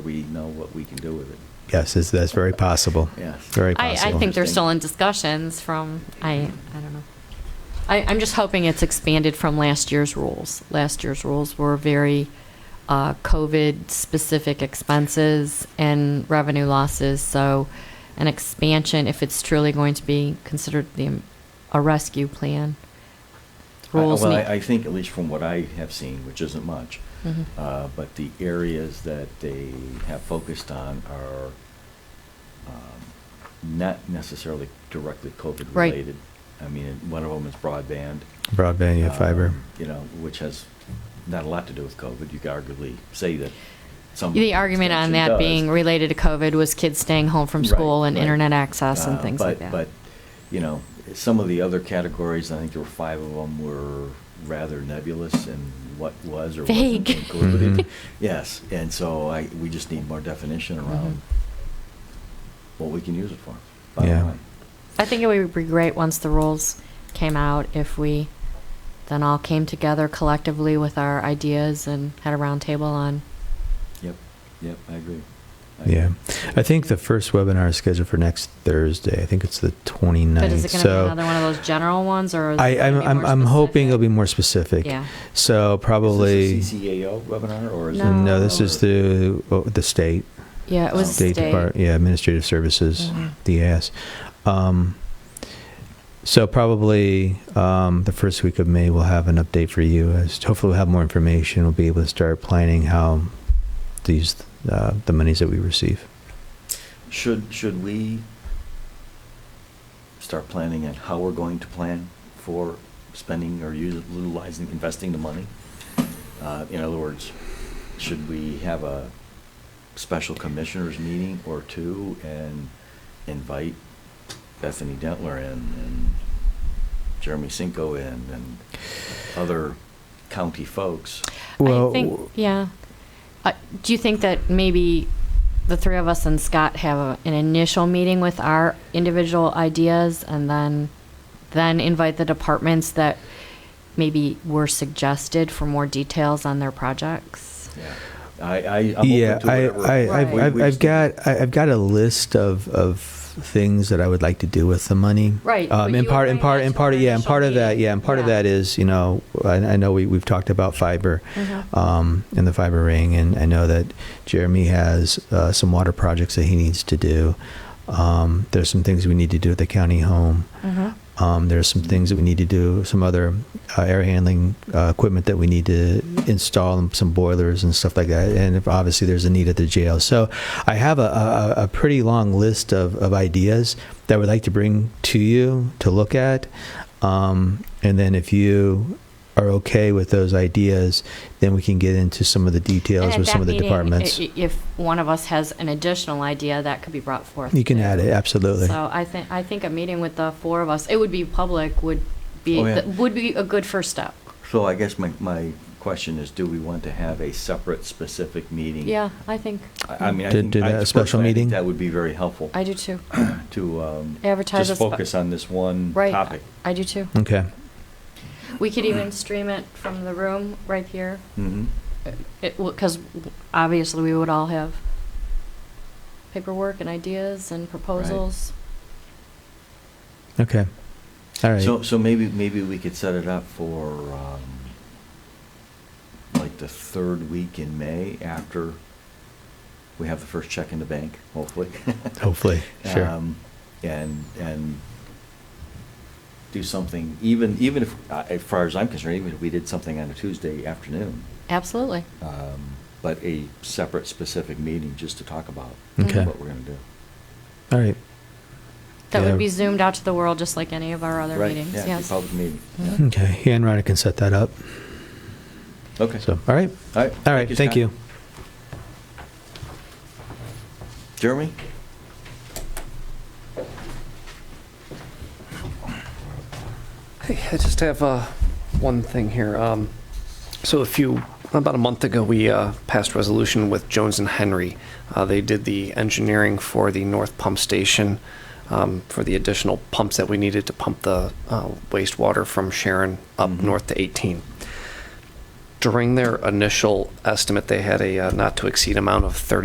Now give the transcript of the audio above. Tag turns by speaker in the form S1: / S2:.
S1: we know what we can do with it.
S2: Yes, that's, that's very possible.
S1: Yeah.
S2: Very
S3: I,
S2: possible.
S3: I think they're
S1: Interesting.
S3: still in discussions from, I, I don't know. I, I'm just hoping it's expanded from last year's rules. Last year's rules were very uh, COVID-specific expenses and revenue losses, so an expansion, if it's truly going to be considered the, a rescue plan.
S1: I-
S3: Rules
S1: Well,
S3: need.
S1: I I think, at least from what I have seen, which isn't much,
S3: Mhm.
S1: uh, but the areas that they have focused on are um, not necessarily directly
S3: Right.
S1: COVID-related. I mean, one of them is broadband.
S2: Broadband, yeah, fiber.
S1: um, You know, which has not a lot to do with COVID. You could arguably say that some.
S3: The argument on
S1: expansion
S3: that
S1: does.
S3: being related to COVID was kids staying home from
S1: Right,
S3: school and
S1: right.
S3: internet access and
S1: Uh,
S3: things
S1: but-
S3: like that.
S1: But, you know, some of the other categories, I think there were five of them, were rather nebulous in what was or wasn't
S3: Vague.
S1: included.
S2: Mhm.
S1: Yes, and so I, we just need more definition
S3: Mm-hmm.
S1: around what we can use it for. bottom
S2: Yeah.
S1: line.
S3: I think it would be great once the rules came out if we then all came together collectively with our ideas and had a roundtable on.
S1: Yep, yep, I agree. I
S2: Yeah.
S1: agree.
S2: I think the first webinar is scheduled for next Thursday. I think it's the 29th.
S3: But is it going to
S2: so
S3: be another one of those general ones, or is
S2: I,
S3: it gonna
S2: I'm,
S3: be
S2: I'm,
S3: more
S2: I'm hoping it'll be
S3: specific?
S2: more specific.
S3: Yeah.
S2: So probably.
S1: Is this a CCAO webinar or is it?
S3: No.
S2: No, this is
S1: another-
S2: the oh, the state.
S3: Yeah, it was
S1: State
S3: state.
S2: Depart- yeah, Administrative Services,
S3: Mhm.
S2: DAS. Um, so probably um, the first week of May, we'll have an update for you. As hopefully, we'll have more information. We'll be able to start planning how these uh, the monies that we receive.
S1: Should, should we start planning on how we're going to plan for spending or us- utilizing, investing the money? Uh, In other words, should we have a special commissioners meeting or two and invite Bethany Dentler in and Jeremy Cinco in and other county folks?
S3: I think, yeah. Uh, do you think that maybe the three of us and Scott have a, an initial meeting with our individual ideas and then then invite the departments that maybe were suggested for more details on their projects?
S1: Yeah. I, I, I'm open
S2: yeah,
S1: to
S2: I,
S1: whatever.
S2: I, I've,
S3: Right.
S2: I've,
S1: We- we
S2: I've
S1: just-
S2: got I- I've got a list of of things that I would like to do with the money.
S3: Right,
S2: Um,
S3: but
S2: and
S3: you
S2: part and
S3: outlined
S2: part
S3: that
S2: and part
S3: in your
S2: yeah, and
S3: initial
S2: part of that
S3: meeting.
S2: yeah, and part of
S3: Yeah. Mm-hmm.
S2: that is you know I, I know we we've talked about fiber,
S1: Mm-hmm.
S2: um, and the fiber ring, and I know that Jeremy has uh, some water projects that he needs to do. Um, there's some things we need to do at the county home.
S1: Mm-hmm.
S2: Um, there's some things that we need to do, some other uh, air handling uh, equipment that we need to install, and some boilers and stuff like that. And if obviously, there's a need at the jail. So I have a, a, a pretty long list of, of ideas that I would like to bring to you to look at. Um, and then if you are okay with those ideas, then we can get into some of the
S3: And
S2: details
S3: at
S2: with some
S3: that
S2: of the
S3: meeting,
S2: departments.
S3: i- i- If one of us has an additional idea, that could be brought forth.
S2: you can
S3: too.
S2: add it, absolutely.
S3: So I think, I think a meeting with the four of us, it would be public, would be,
S1: Oh, yeah.
S3: th- would be a good first step.
S1: So I guess my, my question is, do we want to have a separate, specific meeting?
S3: Yeah, I think.
S1: I I mean, I
S2: To
S1: think.
S2: do
S1: I-
S2: that, a special
S1: personally, I think
S2: meeting?
S1: That would be very helpful
S3: I do too.
S1: to, um.
S3: Advertise a
S1: Just
S3: spe-
S1: focus on this one
S3: Right.
S1: topic.
S3: I do too.
S2: okay.
S3: We could even stream it from the room right here,
S1: Mhm.
S3: because obviously we would all have paperwork and ideas and proposals.
S2: Okay. All right.
S1: So, so maybe, maybe we could set it up for, um, like the third week in May after we have the first check in the bank, hopefully.
S2: Hopefully, sure.
S1: Um, And, and do something, even, even if, uh, as far as I'm concerned, even if we did something on a Tuesday afternoon,
S3: Absolutely.
S1: um, but a separate specific meeting just to talk about
S2: Okay.
S1: what we're going to do.
S2: All right.
S3: That
S2: Yeah.
S3: would be zoomed out to the world just like any of our other
S1: Right,
S3: meetings,
S1: yeah,
S3: yes.
S1: Public meeting. yeah.
S3: Mhm.
S2: Okay. Yeah, and Rhonda can set that up.
S1: Okay.
S2: So, all right.
S1: All right.
S2: All right. Thank
S1: Scott.
S2: you.
S1: Jeremy?
S4: Hey, I just have uh, one thing here. Um, So a few, about a month ago, we uh, passed resolution with Jones and Henry. Uh, They did the engineering for the north pump station, um, for the additional pumps that we needed to pump the uh, wastewater from Sharon up
S1: Mhm.
S4: north to 18. During their initial estimate, they had a uh, not-to-exceed amount of 30.